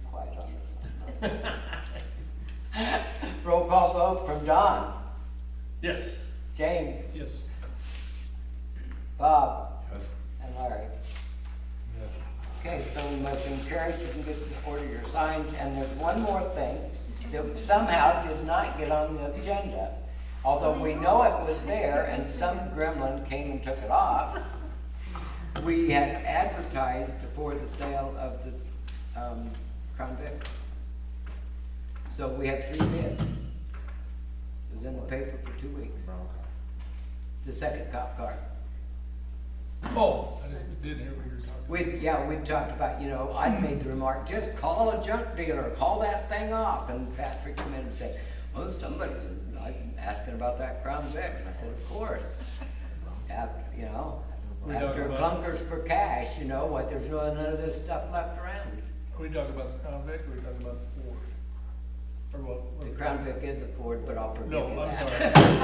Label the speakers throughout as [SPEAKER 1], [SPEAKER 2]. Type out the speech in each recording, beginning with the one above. [SPEAKER 1] Roll call vote from Don,
[SPEAKER 2] Yes.
[SPEAKER 1] James,
[SPEAKER 2] Yes.
[SPEAKER 1] Bob,
[SPEAKER 2] Yes.
[SPEAKER 1] and Larry. Okay, so we motion carries, you can get the order your signs, and there's one more thing that somehow did not get on the agenda. Although we know it was there and some gremlin came and took it off, we had advertised for the sale of the, um, Crown Vic. So we had three bids. It was in the paper for two weeks. The second cop car.
[SPEAKER 2] Oh, I didn't, didn't hear what you were talking
[SPEAKER 1] We, yeah, we talked about, you know, I
[SPEAKER 2] Hmm.
[SPEAKER 1] made the remark, just call a junk dealer, call that thing off, and Patrick come in and said, well, somebody's I'm asking about that Crown Vic, and I said, of course. After, you know,
[SPEAKER 2] We talked
[SPEAKER 1] after
[SPEAKER 2] about-
[SPEAKER 1] clunkers for cash, you know, what, there's no, none of this stuff left around.
[SPEAKER 2] about. Are we talking about the Crown Vic or are we talking about the Ford? Or what?
[SPEAKER 1] The
[SPEAKER 2] what-
[SPEAKER 1] Crown Vic is a Ford, but I'll forgive
[SPEAKER 2] No,
[SPEAKER 1] you
[SPEAKER 2] I'm
[SPEAKER 1] that.
[SPEAKER 2] sorry.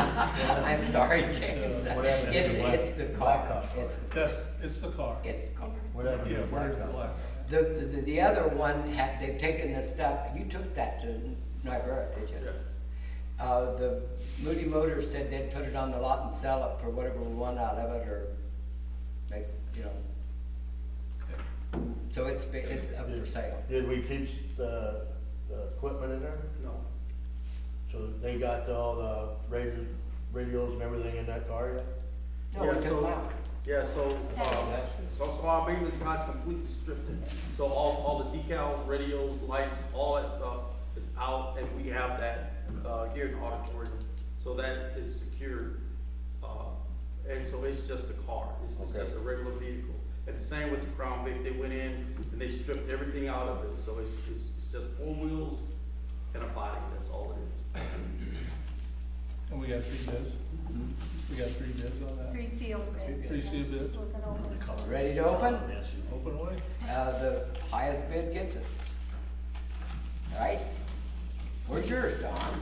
[SPEAKER 1] I'm sorry, James,
[SPEAKER 2] Uh,
[SPEAKER 3] whatever it
[SPEAKER 1] it's,
[SPEAKER 3] is, black-
[SPEAKER 1] it's the
[SPEAKER 3] black
[SPEAKER 1] car,
[SPEAKER 3] car.
[SPEAKER 1] it's, the-
[SPEAKER 2] That's, it's the car.
[SPEAKER 1] it's the car.
[SPEAKER 3] Whatever.
[SPEAKER 2] Yeah, where's the black?
[SPEAKER 1] The, the, the other one had, they've taken the stuff, you took that to Niobrara, did you? Uh, the Moody Motors said they'd put it on the lot and sell it for whatever we want out of it, or make, you know,
[SPEAKER 2] Okay.
[SPEAKER 1] so it's, be- it's up for sale.
[SPEAKER 3] Did we keep the, the equipment in there?
[SPEAKER 4] No,
[SPEAKER 3] So they got all the radio, radios and everything in that car yet?
[SPEAKER 1] No, we
[SPEAKER 4] Yeah,
[SPEAKER 1] took
[SPEAKER 4] so-
[SPEAKER 1] them out.
[SPEAKER 4] yeah, so, uh, so, so our maintenance guy's completely stripped it. So all, all the decals, radios, lights, all that stuff is out and we have that, uh, here in the auditorium. So that is secured, uh, and so it's just a car, it's, it's
[SPEAKER 3] Okay.
[SPEAKER 4] just a regular vehicle. And the same with the Crown Vic, they went in and they stripped everything out of it, so it's, it's, it's just four wheels and a body, that's all it is.
[SPEAKER 2] And we got three bids?
[SPEAKER 1] Mm-hmm.
[SPEAKER 2] We got three bids on that?
[SPEAKER 5] Three sealed bids.
[SPEAKER 2] Three sealed bids.
[SPEAKER 5] Look it over.
[SPEAKER 1] Ready to open?
[SPEAKER 2] Open way?
[SPEAKER 1] Uh, the highest bid gets it. All right? Where's yours, Don?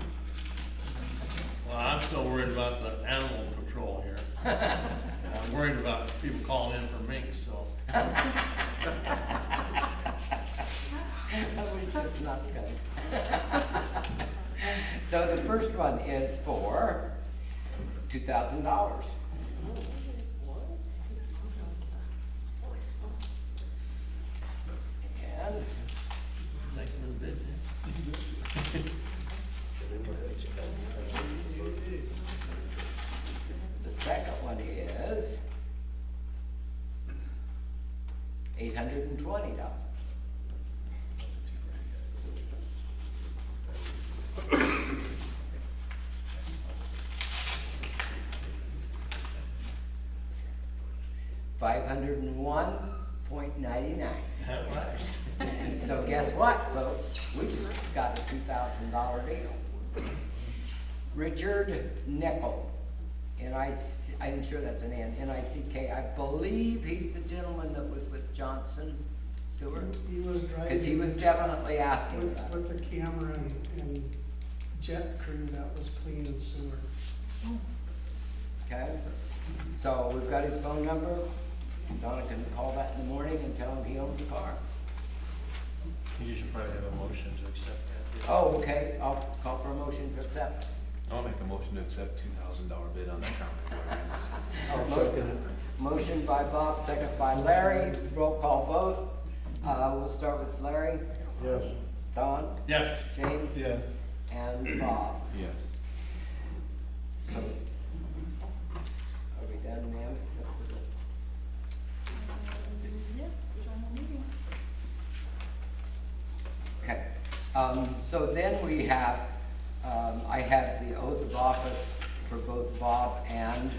[SPEAKER 6] Well, I'm still worried about the animal patrol here. I'm worried about people calling in for minks, so.
[SPEAKER 1] I wish it's not coming. So the first one is for two thousand dollars. And
[SPEAKER 6] Thanks for the bid.
[SPEAKER 1] the second one is eight hundred and twenty dollars. Five hundred and one point ninety-nine.
[SPEAKER 6] All right.
[SPEAKER 1] So guess what, folks? We just got a two thousand dollar deal. Richard Nickel, N I, I'm sure that's an N, N I C K. I believe he's the gentleman that was with Johnson Stewart.
[SPEAKER 7] He was driving.
[SPEAKER 1] Cause he was definitely asking
[SPEAKER 7] With,
[SPEAKER 1] about it.
[SPEAKER 7] with the camera and, and jet crew that was cleaning sewer.
[SPEAKER 1] Okay, so we've got his phone number, Donna can call that in the morning and tell him he owns the car. You should probably have a motion to accept that. Oh, okay, I'll call for a motion to accept.
[SPEAKER 8] I'll make a motion to accept two thousand dollar bid on that counter.
[SPEAKER 1] Oh, motion- Motion by Bob, second by Larry, roll call vote, uh, we'll start with Larry,
[SPEAKER 3] Yes.
[SPEAKER 1] Don,
[SPEAKER 6] Yes,
[SPEAKER 1] James,
[SPEAKER 2] Yes.
[SPEAKER 1] and Bob.
[SPEAKER 8] Yes.
[SPEAKER 1] So, are we done now? Except for the-
[SPEAKER 5] Yes, join the meeting.
[SPEAKER 1] Okay, um, so then we have, um, I have the oath of office for both Bob and,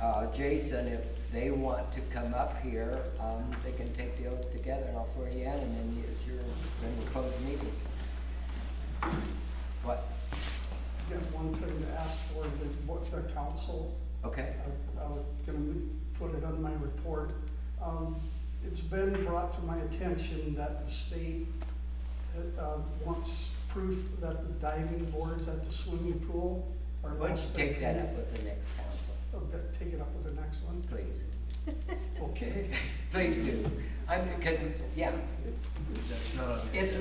[SPEAKER 1] uh, Jason. If they want to come up here, um, they can take the oath together and I'll swear you in and then it's your, then we'll close the meeting. What,
[SPEAKER 7] Got one thing to ask for, the, what the council,
[SPEAKER 1] okay,
[SPEAKER 7] I, I was gonna put it on my report. Um, it's been brought to my attention that the state, uh, wants proof that the diving boards at the swimming pool are
[SPEAKER 1] why don't
[SPEAKER 7] less
[SPEAKER 1] you
[SPEAKER 7] than.
[SPEAKER 1] take that up with the next council,
[SPEAKER 7] Okay, take it up with the next one,
[SPEAKER 1] please,
[SPEAKER 7] okay?
[SPEAKER 1] please do, I'm, because, yeah,
[SPEAKER 2] That's not on
[SPEAKER 1] it's